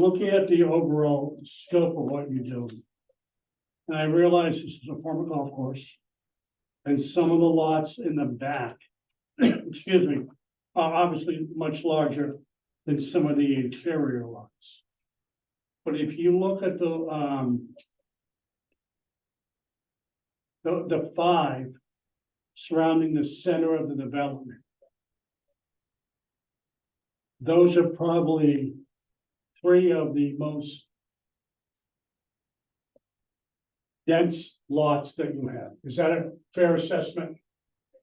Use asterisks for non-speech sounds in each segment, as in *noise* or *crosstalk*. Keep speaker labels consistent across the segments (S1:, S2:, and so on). S1: look at the overall scope of what you do. And I realize this is a former golf course. And some of the lots in the back, *clears throat* excuse me, are obviously much larger than some of the interior lots. But if you look at the, um, the, the five surrounding the center of the development, those are probably three of the most dense lots that you have. Is that a fair assessment?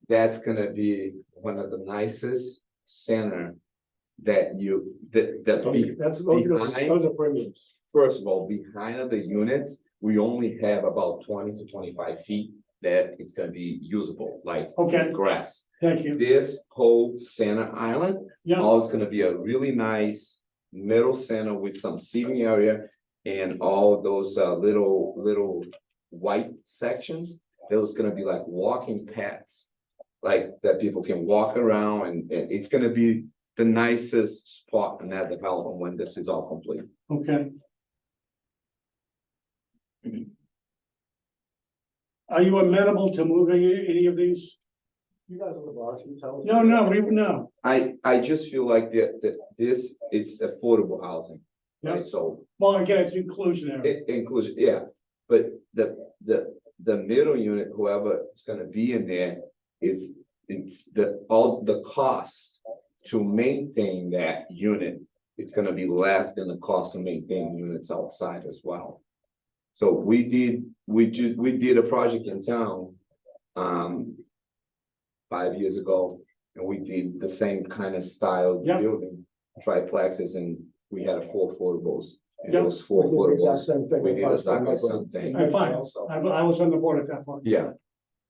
S2: that's gonna be one of the nicest center that you, that, that
S3: Those-
S2: we,
S3: That's, those are,
S2: behind-
S3: those are premiums.
S2: first of all, behind of the units, we only have about twenty to twenty-five feet that it's gonna be usable, like
S1: Okay,
S2: grass.
S1: thank you.
S2: This whole center island,
S1: Yeah,
S2: all it's gonna be a really nice middle center with some seating area and all those, uh, little, little white sections, those gonna be like walking paths. Like that people can walk around and, and it's gonna be the nicest spot in that development when this is all complete.
S1: okay. Are you amenable to moving a- any of these?
S3: You guys are the boss, you tell us.
S1: No, no, we, no.
S2: I, I just feel like that, that this, it's affordable housing. Right, so
S1: Well, again, it's inclusionary.
S2: It includes, yeah, but the, the, the middle unit, whoever is gonna be in there is, it's the, all the costs to maintain that unit, it's gonna be less than the cost to maintain units outside as well. So we did, we ju- we did a project in town, um, five years ago, and we did the same kind of style
S1: Yeah.
S2: building, triplexes, and we had a four affordables. And
S1: Yeah.
S2: those
S3: We
S2: four
S3: did the exact
S2: affordables
S3: same thing
S2: we
S3: with
S2: did
S3: Fox
S2: exactly
S3: Pharma,
S2: same thing.
S3: but-
S1: All right, fine. I, I was on the board at that point.
S2: Yeah,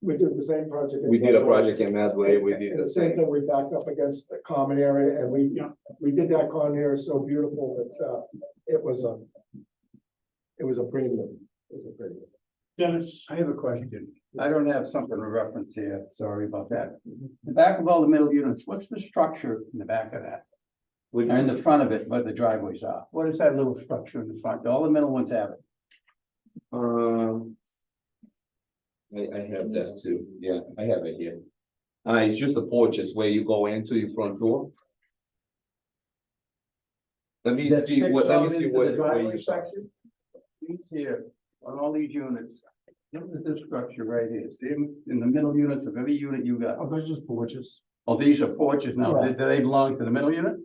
S3: We did the same project. in
S2: we did a
S3: Denver.
S2: project in Medway, we did
S3: And
S2: the same,
S3: thing, we backed up against the common area and we,
S1: Yeah.
S3: we did that common area so beautiful that, uh, it was a, it was a premium, it was a premium.
S1: Dennis,
S4: I have a question. I don't have something to reference here. Sorry about that. The back of all the middle units, what's the structure in the back of that?
S2: Would-
S4: Or in the front of it, where the driveways are? What is that little structure in the front? All the middle ones have it.
S2: um. I, I have that too, yeah, I have it here. Uh, it's just the porches where you go into your front door. Let me
S4: That
S2: see
S4: sticks
S2: what, let
S4: out
S2: me see
S4: into the
S2: what, where
S4: driveway
S2: you saw.
S4: section? These here, on all these units, look at this structure right here. See, in in the middle units of every unit you got.
S3: Oh, those just porches.
S4: Oh, these are porches now. Do do they belong to the middle unit?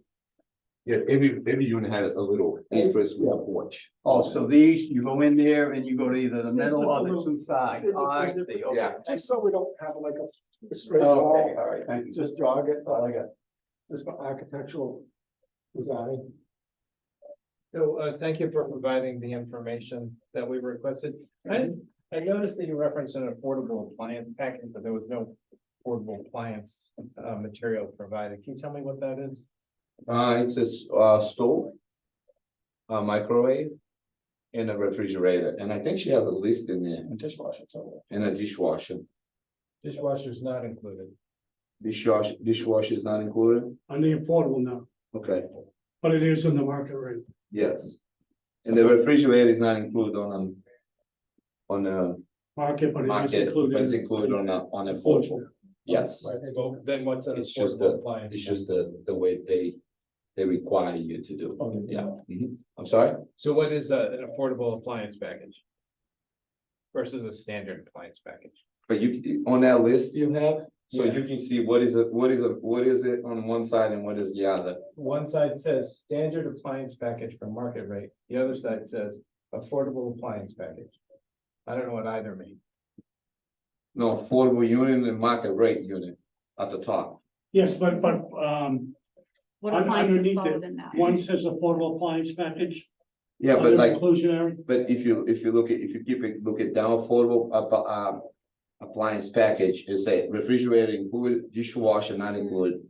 S2: Yeah, every, every unit had a little entrance with a porch.
S4: Oh, so these, you go in there and you go to either the middle or the
S3: different-
S4: two sides. Ah,
S3: they're different-
S4: I see, okay.
S2: Yeah.
S3: Just so we don't have like a straight
S4: Okay,
S3: wall,
S4: all right, thank you.
S3: just jog it,
S2: uh,
S4: All I got.
S3: just for architectural design.
S5: So, uh, thank you for providing the information that we requested. I,
S2: Mhm.
S5: I noticed that you referenced an affordable appliance package, but there was no affordable appliance, uh, material provided. Can you tell me what that is?
S2: Uh, it's a, s- uh, stove. A microwave. And a refrigerator, and I think she has a list in there,
S4: And dishwasher, so.
S2: and a dishwasher.
S5: Dishwasher's not included.
S2: Dishwasher, dishwasher is not included?
S1: on the affordable now,
S2: Okay,
S1: but it is in the market rate.
S2: yes. And the refrigerator is not included on, um, on a
S1: Market, but it is
S2: market,
S1: included.
S2: but it's included on a, on a porch,
S1: Affordable.
S2: yes.
S5: Well, then what's an
S2: It's just
S5: affordable appliance?
S2: It's just the, the way they, they require you to do,
S5: Okay.
S2: yeah. Mhm. I'm sorry?
S5: So what is uh, an affordable appliance package? Versus a standard appliance package?
S2: But you, on that list you have, so
S5: Yeah.
S2: you can see what is it, what is it, what is it on one side and what is the other.
S5: One side says standard appliance package for market rate, the other side says affordable appliance package. I don't know what either means.
S2: No, affordable unit and market rate unit at the top.
S1: Yes, but, but, um,
S6: What
S1: Un-
S6: appliances
S1: underneath
S6: fall
S1: it,
S6: within that?
S1: one says affordable appliance package,
S2: Yeah, but
S1: other
S2: like,
S1: inclusionary,
S2: But if you, if you look at, if you keep it, look at down affordable, app- um, appliance package, you say refrigerator included, dishwasher not included.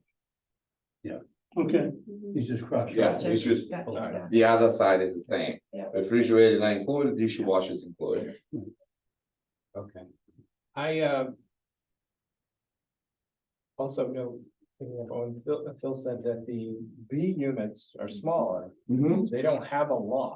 S1: okay,
S6: Mhm.
S4: He's just crushed.
S2: Yeah, it's just,
S6: Yeah,
S5: all right.
S6: yeah.
S2: the other side is the same.
S6: Yeah.
S2: Refrigerator not included, dishwasher is included.
S5: Okay. I, uh. um, Also know picking up on, Phil, Phil said that the B units are smaller, they don't have a lot.